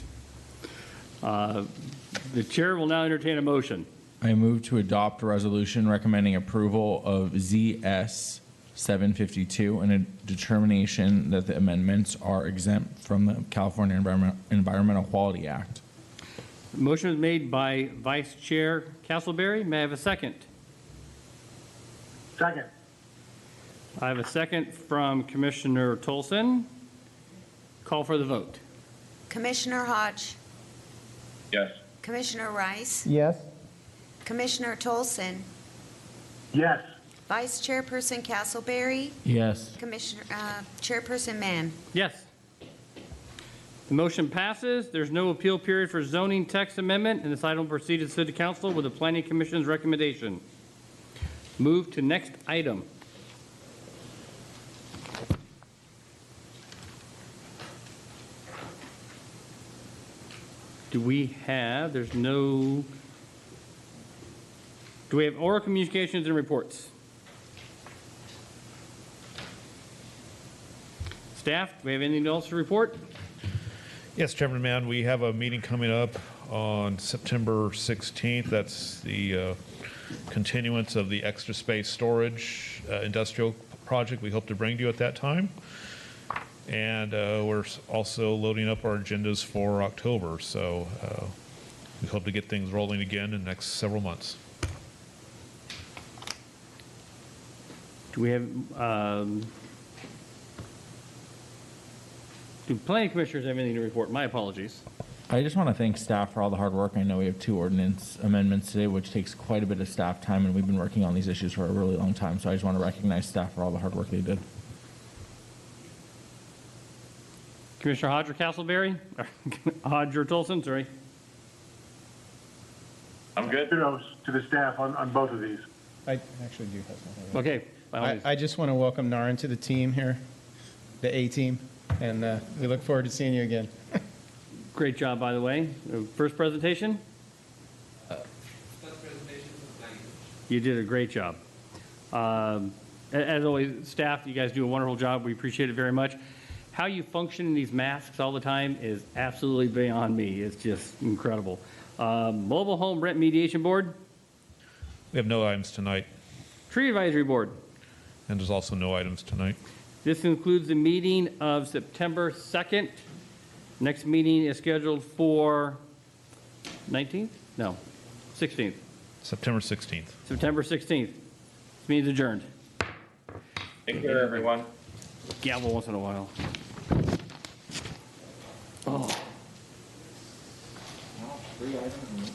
Uh, The chair will now entertain a motion. I move to adopt a resolution recommending approval of ZS 752 and a determination that the amendments are exempt from the California Environment- Environmental Quality Act. Motion is made by Vice Chair Castleberry. May I have a second? Second. I have a second from Commissioner Tolson. Call for the vote. Commissioner Hodge, Yes. Commissioner Rice, yes, Commissioner Tolson, Yes. Vice Chairperson Castleberry, Yes. Commissioner, uh, Chairperson Mann. Yes. The motion passes. There's no appeal period for zoning text amendment, and this item will proceed to the City Council with the Planning Commission's recommendation. Move to next item. Do we have, there's no, do we have oral communications and reports? Staff, do we have anything else to report? Yes, Chairman Mann, we have a meeting coming up on September 16th. That's the uh, continuance of the extra space storage uh, industrial project we hope to bring to you at that time. And uh, we're s- also loading up our agendas for October, so uh, we hope to get things rolling again in the next several months. Do we have, um, do planning commissioners have anything to report? My apologies. I just want to thank staff for all the hard work. I know we have two ordinance amendments today, which takes quite a bit of staff time, and we've been working on these issues for a really long time. So I just want to recognize staff for all the hard work they did. Commissioner Hodger Castleberry, or Hodger Tolson, sorry. I'm good. Kudos to the staff on, on both of these. I actually do have something. Okay. by all I, means. I just want to welcome Narin to the team here, the A team, and uh, we look forward to seeing you again. Great job, by the way. Uh, First presentation? You did a great job. Um, a- As always, staff, you guys do a wonderful job. We appreciate it very much. How you function in these masks all the time is absolutely beyond me. It's just incredible. Um, Mobile Home Rent Mediation Board, We have no items tonight, Tree Advisory Board. and there's also no items tonight. This concludes the meeting of September 2nd. Next meeting is scheduled for 19th? No, 16th. September 16th. September 16th. This meeting's adjourned. Take care, everyone. Gavel once in a while.